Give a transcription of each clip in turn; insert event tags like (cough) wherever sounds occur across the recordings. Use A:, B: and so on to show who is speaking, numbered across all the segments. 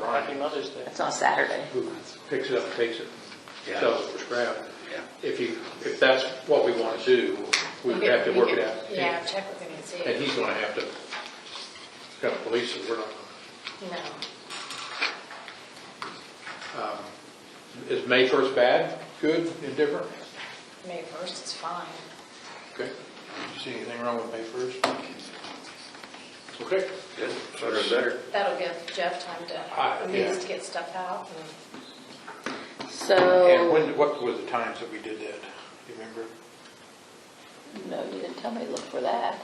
A: Happy Mother's Day.
B: It's on Saturday.
A: Oh, Who picks it up, takes it,
C: Yeah.
A: sells it for scrap.
C: Yeah.
A: If you, if that's what we want to do, we would have to work it out.
D: Yeah, check with him and see.
A: And he's gonna have to, kind of police it, we're not,
D: No,
A: is May first bad, good, indifferent?
D: May 1st is fine.
A: Okay, you see anything wrong with May first? Okay,
C: Good, sooner the better.
D: That'll give Jeff time
A: Ah,
D: to, at
A: yeah.
D: least get stuff out. and-
A: and
B: So,
A: when, what were the times that we did that, do you remember?
B: no, you didn't tell me to look for that.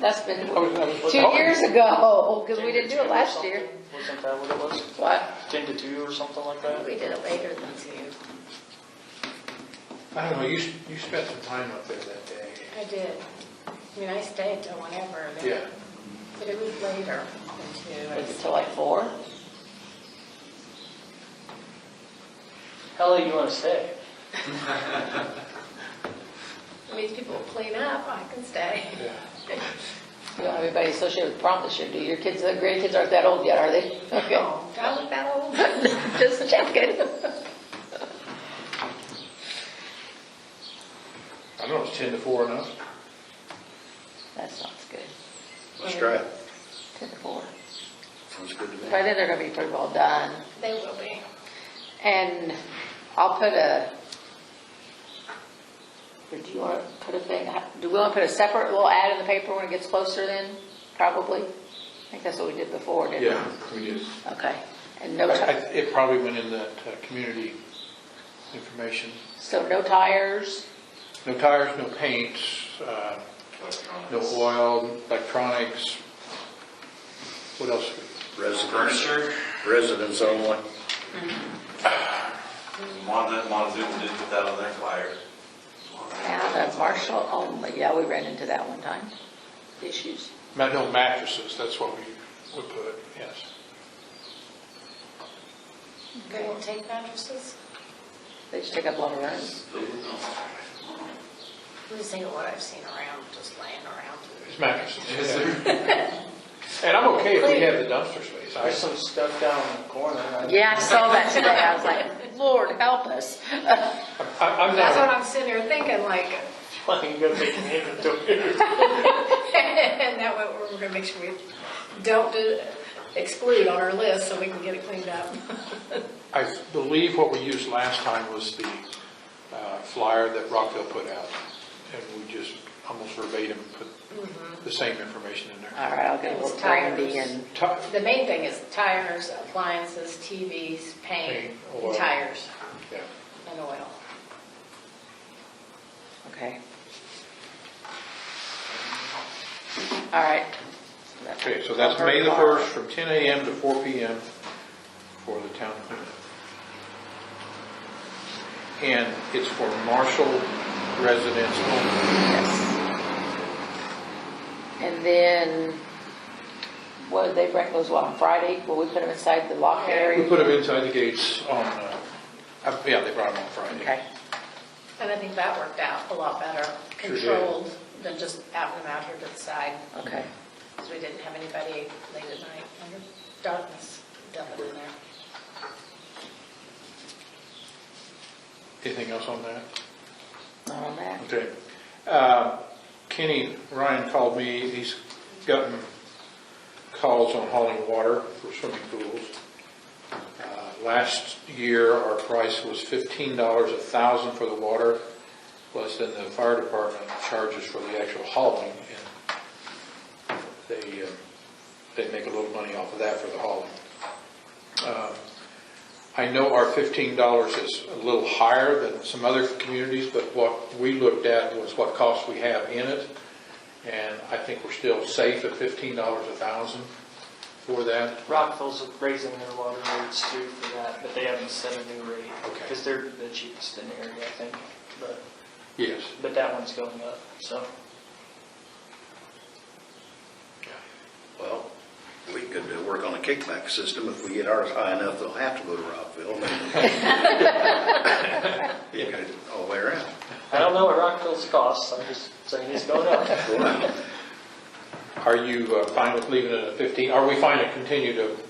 B: That's been
A: I was- I was-
B: two years ago, because we didn't do it last year.
E: Wasn't that what it was?
B: What?
E: Ten to two or something like that?
D: We did it later than two.
A: I don't know, you, s- you spent some time up there that day.
D: I did. I mean, I stayed till whenever. and then-
A: Yeah,
D: But it was later than
B: Was
D: two.
B: it till like four?
E: How late you want to stay?
D: I mean, people clean up, I can stay.
A: yeah.
B: You don't have anybody associated with prom this year, do you? Your kids, the grandkids aren't that old yet, are
A: (laughs)
B: they? Okay,
D: Oh, Do I look that old?
B: just checking.
A: I don't know, it's ten to four enough?
B: That sounds good.
C: Let's try it.
B: Ten to four.
C: Sounds good to me.
B: By then, they're gonna be pretty well done.
D: They will be.
B: And I'll put a, or do you want to put a thing, do we want to put a separate little ad in the paper when it gets closer then? Probably. I think that's what we did before, didn't we?
A: Yeah, we did.
B: Okay. And no,
A: I-
B: ti-
A: I- It probably went in that uh, community information.
B: so no tires,
A: No tires, no paints, uh, no oil, electronics. What else?
C: Residents,
F: Furniture,
C: residents only.
F: Monmouth, Montezuma did put that on their flyer.
B: now the Marshall only, yeah, we ran into that one time, issues.
A: Ma- No mattresses, that's what we would put, yes.
D: They won't take mattresses?
B: They just take up a lot of room.
D: I'm just thinking what I've seen around, just laying around.
A: It's mattresses. yeah. And I'm okay if we have the dumpster space.
E: There's
A: I-
E: some stuff down in the corner. I-
B: Yeah, I saw that today, I was like, (laughs) Lord, help us.
A: I- I'm
D: That's what
A: not,
D: I'm sitting here thinking, like,
E: I can go take an inventory.
D: And that way, we're gonna make sure we don't do- exclude on our list, so we can get it cleaned up.
A: I believe what we used last time was the uh, flyer that Rockville put out. And we just almost verbatim put the same information in there.
B: All right, I'll get
D: It
B: with
D: was
B: Randy
D: tires.
B: and
A: Ti-
D: The main thing is tires, appliances, TVs, paint,
A: Paint, oil.
D: tires,
A: Yeah.
D: and oil.
B: Okay. All right.
A: Okay, so that's May the 1st from 10 a.m. to 4 p.m. for the town cleanup. And it's for Marshall residents only.
B: Yes. And then, what, they bring those, what, on Friday? Will we put them inside the locked
A: We
B: area?
A: put them inside the gates on, uh, uh, yeah, they brought them on Friday.
B: Okay,
D: And I think that worked out a lot better,
A: Sure did.
D: controlled than just having them out here to the side,
B: okay.
D: because we didn't have anybody late at night under darkness dumping in there.
A: Anything else on that?
B: Not on that.
A: Okay. Uh, Kenny Ryan called me, he's gotten calls on hauling water for swimming pools. Uh, Last year, our price was fifteen dollars a thousand for the water, plus then the fire department charges for the actual hauling, and they, uh, they make a little money off of that for the hauling. I know our fifteen dollars is a little higher than some other communities, but what we looked at was what costs we have in it. And I think we're still safe at fifteen dollars a thousand for that.
E: Rockville's raising their water rates too for that, but they haven't set a new rate.
A: Okay.
E: Because they're the cheapest in the area, I think. But,
A: Yes.
E: but that one's going up, so.
C: Well, we could uh, work on a kickback system. If we get ours high enough, they'll have to go to (laughs) Rockville. You could, all the way around.
E: I don't know what Rockville's costs, I'm just saying it's going up. (laughs)
C: Well,
A: Are you uh, fine with leaving it at fifteen? Are we fine to continue to